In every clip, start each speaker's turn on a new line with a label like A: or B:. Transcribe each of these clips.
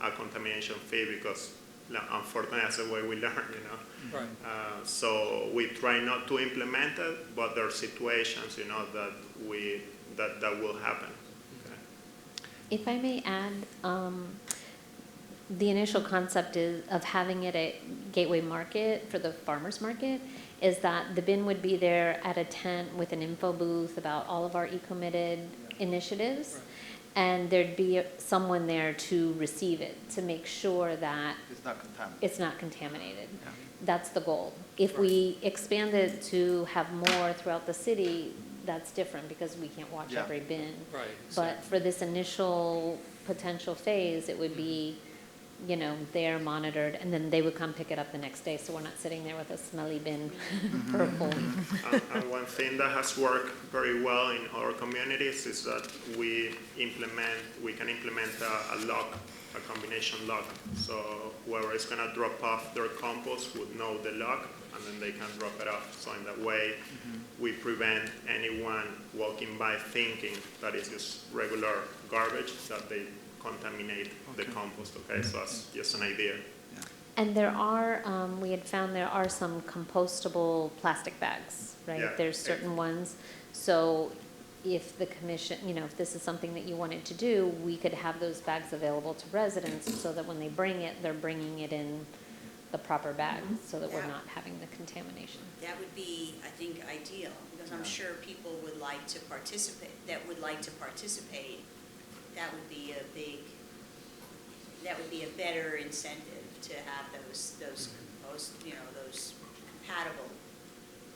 A: a contamination fee because like, unfortunately that's the way we learn, you know.
B: Right.
A: Uh, so we try not to implement it, but there are situations, you know, that we that that will happen. Okay.
C: If I may add, um, the initial concept is, of having it at Gateway Market for the farmer's market, is that the bin would be there at a tent with an info booth about all of our eco-committed initiatives.
B: Right.
C: And there'd be someone there to receive it, to make sure that
D: It's not contaminated.
C: it's not contaminated.
D: Yeah.
C: That's the goal. If we expand it to have more throughout the city, that's different because we can't watch
D: Yeah.
C: every bin.
B: Right,
C: But for this initial potential phase, it would be, you know, there monitored, and then they would come pick it up the next day, so we're not sitting there with a smelly bin
D: Mm-hmm.
C: for a whole.
A: and, Uh, and one thing that has worked very well in our communities is that we implement, we can implement a, a lock, a combination lock. So whoever is gonna drop off their compost would know the lock, and then they can drop it off. So in that way, we prevent anyone walking by thinking that it's just regular garbage, that they contaminate the
D: Okay.
A: compost, okay? So that's just an idea.
C: And there are, um, we had found there are some compostable plastic bags,
A: Yeah.
C: right? There's certain ones. So if the commission, you know, if this is something that you wanted to do, we could have those bags available to residents so that when they bring it, they're bringing it in the proper bag, so that we're
E: Yeah.
C: not having the contamination.
E: That would be, I think, ideal, because I'm
D: Yeah.
E: sure people would like to participate, that would like to participate. That would be a big, that would be a better incentive to have those, those, those, you know, those compatible,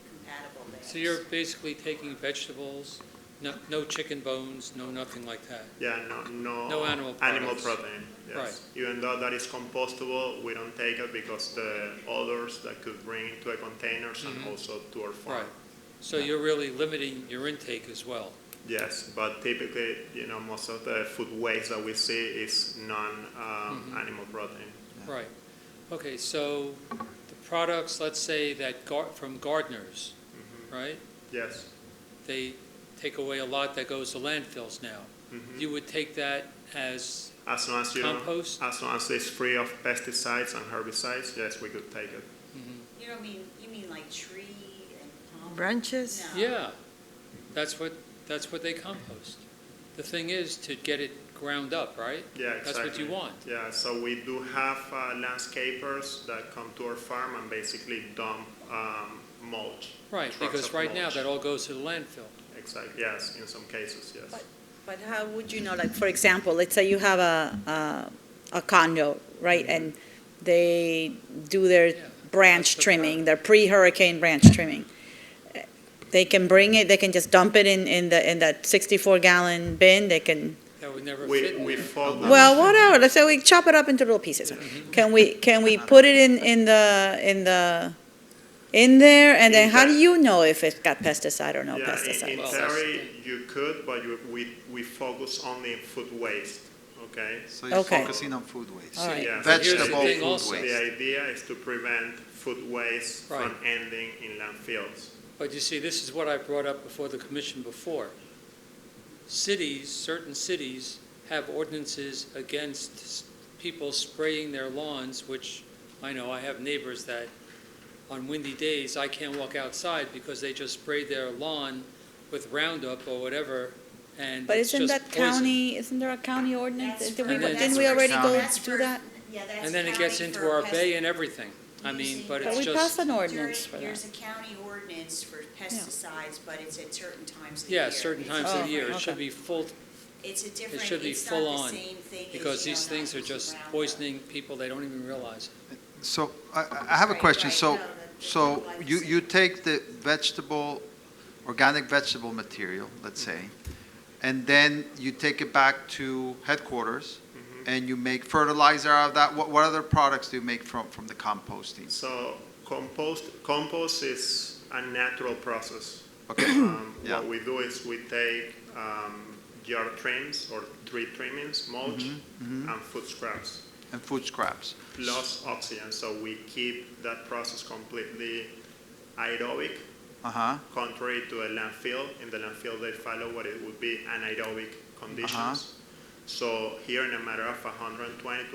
E: compatible bags.
B: So you're basically taking vegetables, no, no chicken bones, no nothing like that.
A: Yeah, no, no.
B: No animal products.
A: protein, yes. Even though that is compostable, we don't take it because the odors that could bring into a containers and
B: Mhm.
A: also to our farm.
B: Right. So you're really limiting your intake as well.
A: Yes, but typically, you know, most of the food waste that we see is
B: Mm-hmm.
A: non-animal protein.
D: Yeah.
B: Right. Okay, so the products, let's say that gar, from gardeners,
A: Mhm.
B: right?
A: Yes.
B: They take away a lot that goes to landfills now.
A: Mhm.
B: You would take that as,
A: As long as you.
B: Compost?
A: As long as it's free of pesticides and herbicides, yes, we could take it.
E: You don't mean, you mean like tree and palm?
F: Branches?
E: No.
B: yeah, that's what, that's what they compost. The thing is to get it ground up, right?
A: Yeah, exactly.
B: That's what you want.
A: Yeah, so we do have uh, landscapers that come to our farm and basically dump um, mulch.
B: Right,
A: trucks
B: because
A: of
B: right now
A: mulch.
B: that all goes to the landfill.
A: Exactly, yes, in some cases, yes.
F: But- But how would you know, like, for example, let's say you have a, a a condo, right? And they do their
B: Yeah.
F: branch
B: That's the
F: trimming,
B: part.
F: their pre-hurricane branch trimming. They can bring it, they can just dump it in, in the, in that sixty-four gallon bin, they can,
B: That would never fit
A: We,
B: in
A: we
B: there.
A: follow.
F: well, whatever, let's say we chop it up into little pieces. Can we, can we put it in, in the, in the, in there? And then how do you know if it's got pesticide or no
A: Yeah, in-
F: pesticide?
A: in
B: Well, that's-
A: theory, you could, but you- we, we focus only in food waste, okay?
D: So you're
F: Okay.
D: focusing on food waste.
F: All right.
A: Yeah.
D: Vegetable
B: Here's the thing
D: food
B: also.
D: waste.
A: The idea is to prevent food waste from
B: Right.
A: ending in landfills.
B: But you see, this is what I brought up before the commission before. Cities, certain cities have ordinances against s- people spraying their lawns, which I know I have neighbors that on windy days, I can't walk outside because they just spray their lawn with Roundup or whatever, and
F: But
B: it's
F: isn't
B: just
F: that
B: poison.
F: county, isn't there a county ordinance?
E: That's
F: Did we,
B: And then-
F: didn't we already go
E: That's
F: do
E: for-
F: that?
E: Yeah, that's.
B: And then it gets
E: county
B: into
E: for
B: our
E: pest-
B: bay and everything. I mean,
E: Using-
B: but
F: But
B: it's
F: we passed
B: just,
F: an ordinance
E: During-
F: for
E: There's
F: that.
E: a county ordinance for pesticides, but it's at certain times of the year.
B: yeah, certain times of
F: Oh,
B: the year, it
F: okay.
B: should be full,
E: It's a different,
B: should be
E: it's
B: full
E: not the
B: on,
E: same thing as,
B: because
E: you know,
B: these
E: not
B: things are
E: using
B: just
E: Roundup.
B: poisoning people, they don't even realize it.
D: So I, I have a
E: Right,
D: question.
E: right.
D: So,
E: No, that's-
D: so
E: that's
D: you,
E: glyphosate.
D: you take the vegetable, organic vegetable material, let's say, and then you take it back to headquarters
B: Mm-hmm.
D: and you make fertilizer out of that. What, what other products do you make from, from the composting?
A: So compost, compost is a natural process.
D: Okay,
A: Um,
D: Yeah.
A: What we do is we take um, yard trims or tree trimmings, mulch, and food scraps,
D: Mm-hmm. and food scraps.
A: plus oxygen. So we keep that process completely aerobic,
D: Uh-huh,
A: contrary to a landfill. In the landfill, they follow what it would be anaerobic conditions. So here, in a matter of 120 to